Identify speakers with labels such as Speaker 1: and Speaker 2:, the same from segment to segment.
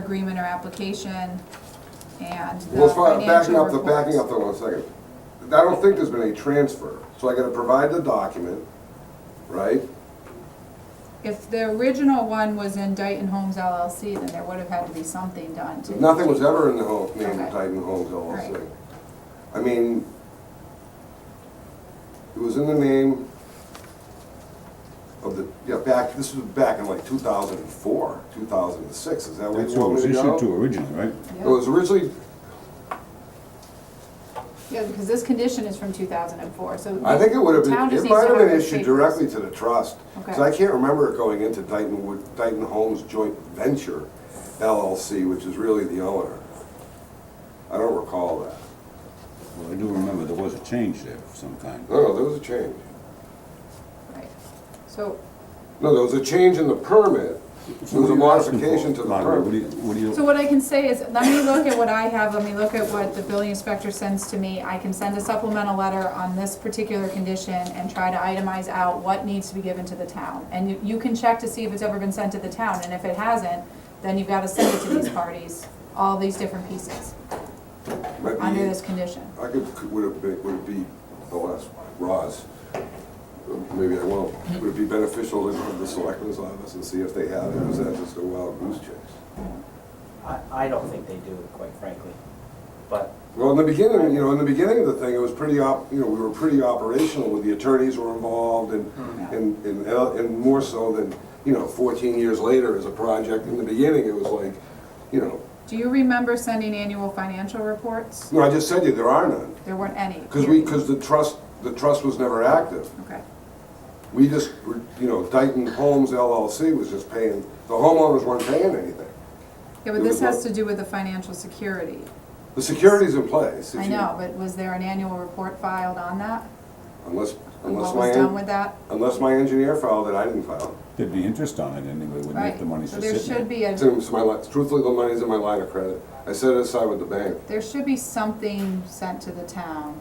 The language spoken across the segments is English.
Speaker 1: agreement or application and the
Speaker 2: Well, if I- backing
Speaker 1: financial
Speaker 2: up, the backing up
Speaker 1: reports.
Speaker 2: though one second. I don't think there's been any transfer, so I gotta provide the document, right?
Speaker 1: If the original one was in Dayton Homes LLC, then there would have had to be something done to.
Speaker 2: Nothing was ever in the home, name
Speaker 1: Okay.
Speaker 2: of Titan Homes LLC.
Speaker 1: Right.
Speaker 2: I mean, it was in the name of the, yeah, back, this was back in like two thousand and four, two thousand and six, is that what
Speaker 3: That's
Speaker 2: you
Speaker 3: who it
Speaker 2: want me
Speaker 3: was
Speaker 2: to
Speaker 3: issued
Speaker 2: go?
Speaker 3: to originally, right?
Speaker 2: It was originally,
Speaker 1: Yeah, because this condition is from two thousand and four, so.
Speaker 2: I think it would have
Speaker 1: the town
Speaker 2: been,
Speaker 1: just
Speaker 2: it
Speaker 1: needs to
Speaker 2: might have been
Speaker 1: those
Speaker 2: issued
Speaker 1: papers.
Speaker 2: directly to the trust. Because
Speaker 1: Okay.
Speaker 2: I can't remember it going into Dayton, Wood- Dayton Homes Joint Venture LLC, which is really the owner. I don't recall that.
Speaker 3: Well, I do remember there was a change there of some kind.
Speaker 2: No, no, there was a change.
Speaker 1: Right. So,
Speaker 2: No, there was a change in the permit. There
Speaker 3: So
Speaker 2: was
Speaker 3: what
Speaker 2: a
Speaker 3: are you asking
Speaker 2: modification
Speaker 3: for,
Speaker 2: to the
Speaker 3: Barbara? What do
Speaker 2: permit.
Speaker 3: you, what do
Speaker 1: so
Speaker 3: you,
Speaker 1: what I can say is, let me look at what I have, let me look at what the building inspector sends to me. I can send a supplemental letter on this particular condition and try to itemize out what needs to be given to the town. And you- you can check to see if it's ever been sent to the town, and if it hasn't, then you've got to send it to these parties, all these different pieces,
Speaker 2: Might be-
Speaker 1: under this condition.
Speaker 2: I could, could- would it be, would it be, I'll ask Roz, maybe I won't. Would it be beneficial to go to the selectmen's office and see if they have it? Or is that just a wild goose chase?
Speaker 4: I, I don't think they do, quite frankly. But
Speaker 2: Well, in the beginning, you know, in the beginning of the thing, it was pretty op, you know, we were pretty operational with the attorneys were involved and, and, and, el- and more so than, you know, fourteen years later as a project. In the beginning, it was like, you know,
Speaker 1: Do you remember sending annual financial reports?
Speaker 2: no, I just said to you, there are none.
Speaker 1: There weren't any.
Speaker 2: Cause we, cause the trust, the trust was never active.
Speaker 1: Okay,
Speaker 2: We just, were- you know, Dayton Homes LLC was just paying, the homeowners weren't paying anything.
Speaker 1: yeah,
Speaker 2: It
Speaker 1: but this
Speaker 2: was
Speaker 1: has
Speaker 2: what-
Speaker 1: to do with the financial security.
Speaker 2: The security's in place. if
Speaker 1: I
Speaker 2: you-
Speaker 1: know, but was there an annual report filed on that?
Speaker 2: Unless,
Speaker 1: And
Speaker 2: unless
Speaker 1: What
Speaker 2: my,
Speaker 1: was done with
Speaker 2: en-
Speaker 1: that?
Speaker 2: unless my engineer filed it, I didn't file it.
Speaker 3: there'd be interest on it anyway, wouldn't it,
Speaker 1: Right,
Speaker 3: if the money's
Speaker 1: so
Speaker 3: just
Speaker 1: there
Speaker 3: sitting
Speaker 1: should
Speaker 3: there?
Speaker 1: be a,
Speaker 2: It's in it's my, li- truthfully, the money's in my line of credit. I set it aside with the bank.
Speaker 1: there should be something sent to the town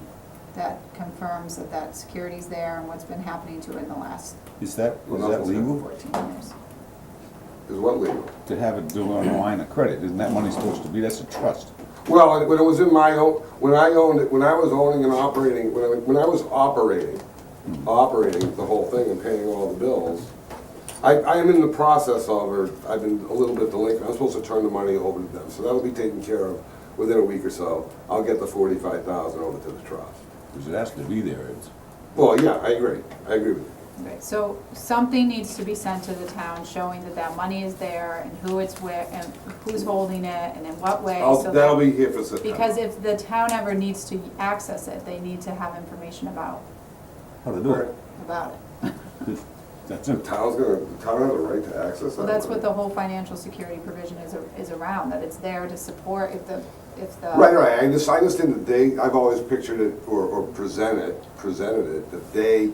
Speaker 1: that confirms that that security's there and what's been happening to it in the last
Speaker 3: Is that,
Speaker 2: Well,
Speaker 3: is that
Speaker 2: nothing's
Speaker 3: legal?
Speaker 1: fourteen years.
Speaker 2: Is what legal?
Speaker 3: To have it do on a line of credit, isn't that money supposed to be, that's a trust?
Speaker 2: Well, when it was in my own, when I owned it, when I was owning and operating, when I, when I was operating, operating the whole thing and paying all the bills, I, I am in the process of, or I've been a little bit delinquent, I'm supposed to turn the money over to them, so that'll be taken care of within a week or so. I'll get the forty-five thousand over to the trust.
Speaker 3: Because it has to be there, it's,
Speaker 2: Well, yeah, I agree, I agree with you.
Speaker 1: Right, so something needs to be sent to the town showing that that money is there and who it's where, and who's holding it and in what way.
Speaker 2: I'll,
Speaker 1: so that-
Speaker 2: that'll be here for September.
Speaker 1: Because if the town ever needs to access it, they need to have information about,
Speaker 3: how to do it.
Speaker 1: about it.
Speaker 3: That's
Speaker 2: The
Speaker 3: it.
Speaker 2: town's gonna, the town has a right to access that
Speaker 1: So that's what
Speaker 2: money.
Speaker 1: the whole financial security provision is, is around, that it's there to support if the, if the.
Speaker 2: Right, right, I just, I understand that they, I've always pictured it, or, or presented, presented it, that they,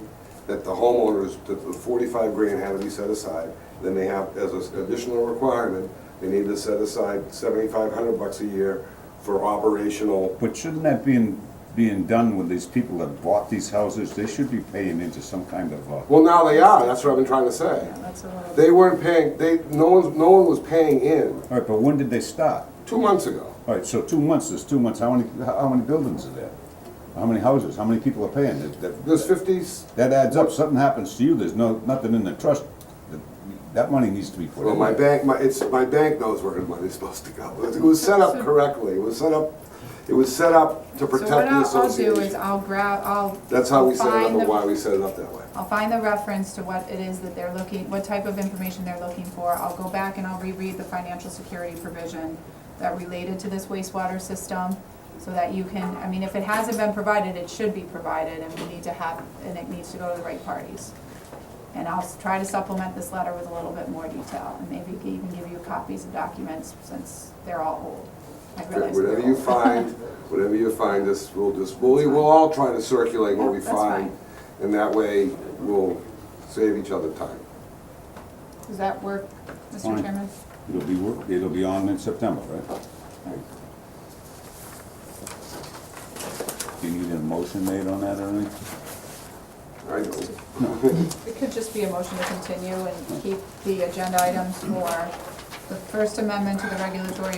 Speaker 2: that the homeowners, that the forty-five grand had to be set aside, then they have, as an additional requirement, they need to set aside seventy-five hundred bucks a year for operational,
Speaker 3: But shouldn't that being, being done with these people that bought these houses, they should be paying into some kind of, uh,
Speaker 2: well, now they are, that's what I've been trying to say.
Speaker 1: Yeah, That's a
Speaker 2: They
Speaker 1: little,
Speaker 2: weren't paying, they, no one, no one was paying in,
Speaker 3: all right, but when did they start?
Speaker 2: two months ago.
Speaker 3: All right, so two months, there's two months, how many, how how many buildings are there? How many houses, how many people are paying? That- that-
Speaker 2: There's fifties,
Speaker 3: That adds up, something happens to you, there's no, nothing in the trust, that, that money needs to be put
Speaker 2: Well,
Speaker 3: in.
Speaker 2: my
Speaker 3: there.
Speaker 2: bank, my, it's, my bank knows where the money's supposed to go. It was set up correctly, it was set up, it was set up to
Speaker 1: so what
Speaker 2: protect the
Speaker 1: I'll, I'll do is
Speaker 2: association.
Speaker 1: I'll grab, I'll.
Speaker 2: That's how we set it up
Speaker 1: find
Speaker 2: and
Speaker 1: the-
Speaker 2: why we set it up that way.
Speaker 1: I'll find the reference to what it is that they're looking, what type of information they're looking for. I'll go back and I'll reread the financial security provision that related to this wastewater system, so that you can, I mean, if it hasn't been provided, it should be provided, and we need to have, and it needs to go to the right parties. And I'll s- try to supplement this letter with a little bit more detail, and maybe even give you copies of documents, since they're all old. I realize they're
Speaker 2: Whatever you
Speaker 1: old.
Speaker 2: find, whatever you find, this, we'll just, we'll, we'll all try to circulate what
Speaker 1: Yeah,
Speaker 2: we
Speaker 1: that's fine.
Speaker 2: find. And that way, we'll save each other time.
Speaker 1: Does that work, Mr.
Speaker 3: Fine.
Speaker 1: Chairman?
Speaker 3: It'll be, wor- it'll be on in September, right? Do you need a motion made on that or anything?
Speaker 2: I know.
Speaker 1: It could just be a motion to continue and keep the agenda items for the First Amendment to the regulatory